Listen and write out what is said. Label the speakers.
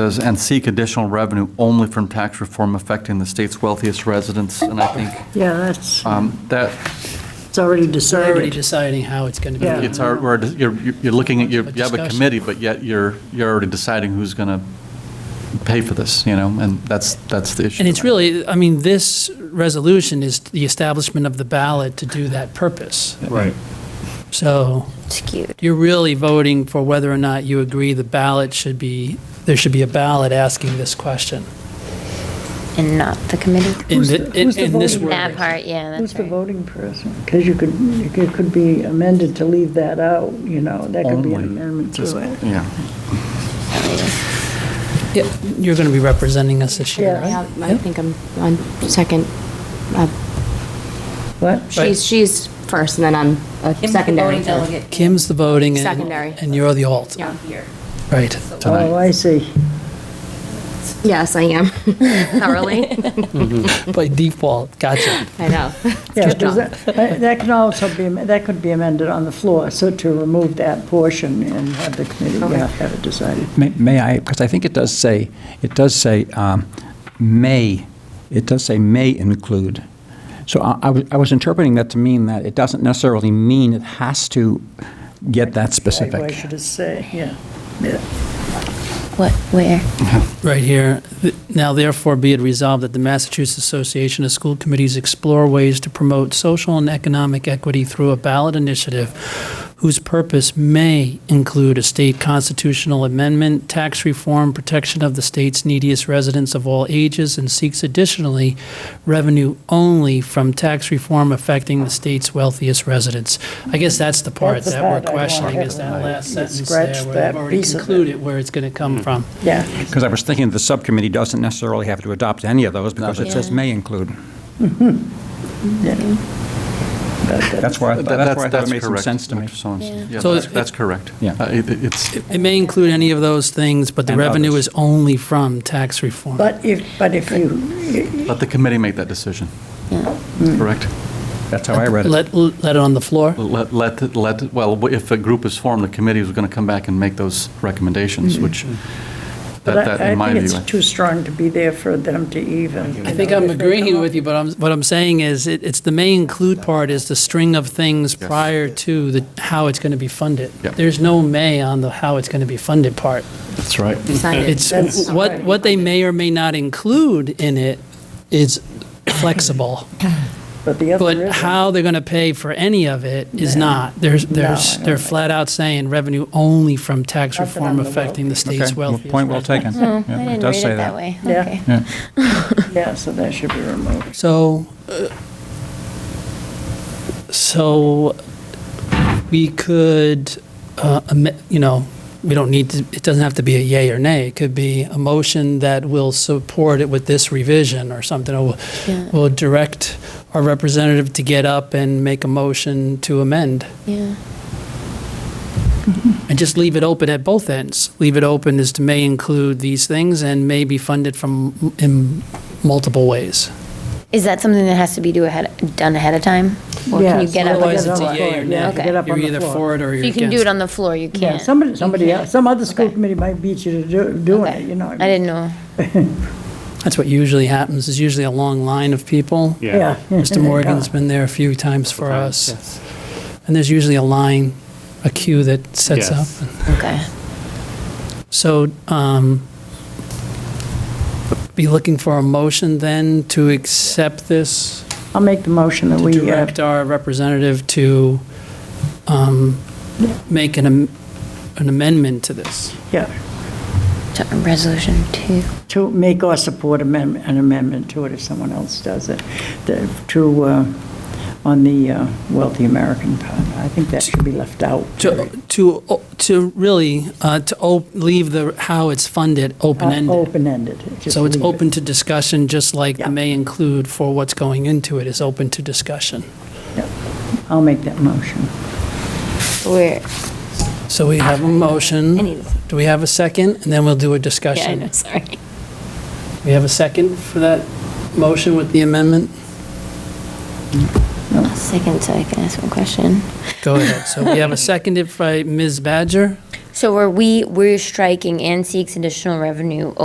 Speaker 1: Says, "And seek additional revenue only from tax reform affecting the state's wealthiest residents." And I think
Speaker 2: Yeah, that's,
Speaker 1: um, that,
Speaker 2: it's already
Speaker 3: They're already
Speaker 2: decided.
Speaker 3: deciding how it's going to be.
Speaker 2: Yeah.
Speaker 1: it's our, we're- you're you're looking at, your- you have a
Speaker 3: discussion.
Speaker 1: committee, but yet you're, you're already deciding who's going to pay for this, you know, and that's, that's the issue.
Speaker 3: And it's really, I mean, this resolution is the establishment of the ballot to do that purpose.
Speaker 4: Right.
Speaker 3: So
Speaker 5: skewed.
Speaker 3: you're really voting for whether or not you agree the ballot should be, there should be a ballot asking this question.
Speaker 5: And not the committee?
Speaker 3: In
Speaker 2: Who's
Speaker 3: thi-
Speaker 2: the-
Speaker 3: in-
Speaker 2: who's the
Speaker 3: in this
Speaker 2: voting
Speaker 3: word.
Speaker 5: That part, yeah,
Speaker 2: Who's
Speaker 5: that's
Speaker 2: the
Speaker 5: right.
Speaker 2: voting person? Because you could, it could be amended to leave that out, you know, that could be an
Speaker 1: Only.
Speaker 2: amendment
Speaker 1: Just-
Speaker 2: to it.
Speaker 1: Yeah.
Speaker 3: Yeah, You're going to be representing us this year,
Speaker 2: Yeah.
Speaker 3: right?
Speaker 6: Yeah, I think I'm on second. uh,
Speaker 2: What?
Speaker 6: She's, she's first, and then I'm a secondary.
Speaker 3: Kim's the voting. and-
Speaker 6: Secondary.
Speaker 3: And you're the alt,
Speaker 6: Yeah.
Speaker 3: right?
Speaker 2: Oh, I see.
Speaker 6: Yes, I am. Thoroughly.
Speaker 3: By default, gotcha.
Speaker 6: I know.
Speaker 2: Yeah,
Speaker 6: Good
Speaker 2: because
Speaker 6: job.
Speaker 2: that, that can also be, that could be amended on the floor, so to remove that portion and have the committee, yeah, have it decided.
Speaker 7: May- May I, because I think it does say, it does say, um, may, it does say may include. So I- I was- I was interpreting that to mean that it doesn't necessarily mean it has to get that
Speaker 2: Like, Why
Speaker 7: specific.
Speaker 2: should it say, yeah, yeah.
Speaker 5: What, where?
Speaker 3: Right here. Th- Now therefore be it resolved that the Massachusetts Association of School Committees explore ways to promote social and economic equity through a ballot initiative whose purpose may include a state constitutional amendment, tax reform, protection of the state's neediest residents of all ages, and seeks additionally revenue only from tax reform affecting the state's wealthiest residents. I guess that's the part
Speaker 2: That's the
Speaker 3: that we're
Speaker 2: part I want.
Speaker 3: questioning, is that last
Speaker 2: You
Speaker 3: sentence there
Speaker 2: scratched
Speaker 3: where
Speaker 2: that
Speaker 3: they've already
Speaker 2: piece of it.
Speaker 3: concluded where it's going to come from.
Speaker 2: Yeah,
Speaker 7: Because I was thinking the subcommittee doesn't necessarily have to adopt any of those because it says may include.
Speaker 2: yeah.
Speaker 7: That's why, I thought- that's why I thought it made some
Speaker 1: correct,
Speaker 7: sense to me.
Speaker 1: Dr. Sorensen. Yeah,
Speaker 3: So
Speaker 1: that's-
Speaker 3: it-
Speaker 1: that's correct.
Speaker 7: Yeah.
Speaker 1: Uh, it- It's,
Speaker 3: It may include any of those things, but the
Speaker 7: And
Speaker 3: revenue
Speaker 7: others.
Speaker 3: is only from tax reform.
Speaker 2: But if, but if you,
Speaker 1: let the committee make that decision. Correct?
Speaker 7: That's how I read it.
Speaker 3: Let, let it on the floor.
Speaker 1: Let, let, let, well, if a group is formed, the committee is going to come back and make those recommendations, which,
Speaker 2: Mm-hmm. but
Speaker 1: that, that,
Speaker 2: I
Speaker 1: in my
Speaker 2: I think
Speaker 1: view.
Speaker 2: it's too strong to be there for them to even.
Speaker 3: I think I'm agreeing with you, but I'm, what I'm saying is, it, it's the may include part is the string of things
Speaker 1: Yes.
Speaker 3: prior to the, how it's going to be funded.
Speaker 1: Yep.
Speaker 3: There's no may on the how it's going to be funded part.
Speaker 1: That's right.
Speaker 6: Decided.
Speaker 3: It's,
Speaker 2: That's-
Speaker 3: what, what they may or may not include in it is flexible.
Speaker 2: But the other
Speaker 3: But
Speaker 2: isn't.
Speaker 3: how they're going to pay for any of it is not. There's,
Speaker 2: I
Speaker 3: there's,
Speaker 2: don't
Speaker 3: they're
Speaker 2: think-
Speaker 3: flat out saying revenue only from tax
Speaker 2: Nothing
Speaker 3: reform
Speaker 2: on the
Speaker 3: affecting the state's
Speaker 7: Okay, well,
Speaker 3: wealthiest.
Speaker 7: point well taken.
Speaker 5: Oh,
Speaker 7: Yeah,
Speaker 5: I didn't
Speaker 7: does
Speaker 5: read
Speaker 7: say
Speaker 5: it that way.
Speaker 2: Yeah.
Speaker 5: Okay.
Speaker 7: Yeah.
Speaker 2: Yeah, so that should be removed.
Speaker 3: So, uh, so we could, uh, am- you know, we don't need to, it doesn't have to be a yay or nay. It could be a motion that will support it with this revision or something. Or
Speaker 5: Yeah.
Speaker 3: We'll direct our representative to get up and make a motion to amend.
Speaker 5: Yeah.
Speaker 3: And just leave it open at both ends. Leave it open as to may include these things and may be funded from, in multiple ways.
Speaker 5: Is that something that has to be do ahead, done ahead of time? Or can you
Speaker 2: Yes,
Speaker 5: get up?
Speaker 3: Otherwise,
Speaker 5: and-
Speaker 3: it's a yay or
Speaker 2: Yeah,
Speaker 3: nay.
Speaker 5: okay. Get
Speaker 2: up on the
Speaker 3: You're either
Speaker 2: floor.
Speaker 3: for it or you're
Speaker 5: You
Speaker 3: against.
Speaker 5: can do it on the floor, you can't.
Speaker 2: Yeah, somebody, somebody,
Speaker 5: You
Speaker 2: else- some other school
Speaker 5: Okay.
Speaker 2: committee might beat you to do- doing
Speaker 5: Okay.
Speaker 2: it, you know.
Speaker 5: I
Speaker 2: what mean?
Speaker 5: didn't know.
Speaker 3: That's what usually happens, is usually a long line of people.
Speaker 4: Yeah.
Speaker 3: Mr. Morgan's been there a few times for us. And there's usually a line, a queue that sets up.
Speaker 4: Yes.
Speaker 5: Okay.
Speaker 3: So um, be looking for a motion then to accept this,
Speaker 2: I'll make the motion that
Speaker 3: to
Speaker 2: we, uh,
Speaker 3: direct our representative to um, make an am- an amendment to this.
Speaker 2: yeah,
Speaker 5: So, Resolution two.
Speaker 2: to make or support amendment, an amendment to it if someone else does it, the- to, uh, on the uh, wealthy American part. I think that should be left out. Uh,
Speaker 3: To, to, to really, uh, to op- leave the, how it's funded,
Speaker 2: Uh,
Speaker 3: open-ended.
Speaker 2: Open-ended. Just
Speaker 3: So it's
Speaker 2: leave it.
Speaker 3: open to discussion, just like
Speaker 2: Yeah.
Speaker 3: the may include for what's going into it is open to discussion.
Speaker 2: I'll make that motion.
Speaker 5: Where?
Speaker 3: So we have a
Speaker 6: I
Speaker 3: motion.
Speaker 6: need
Speaker 3: Do we have a second? And then we'll do a
Speaker 6: Yeah, I
Speaker 3: discussion.
Speaker 6: know, sorry.
Speaker 3: We have a second for that motion with the amendment?
Speaker 5: I'll Second, so I can ask one question.
Speaker 3: Go ahead. So we have a seconded by Ms. Badger.
Speaker 5: So are we, we're striking and seeks additional revenue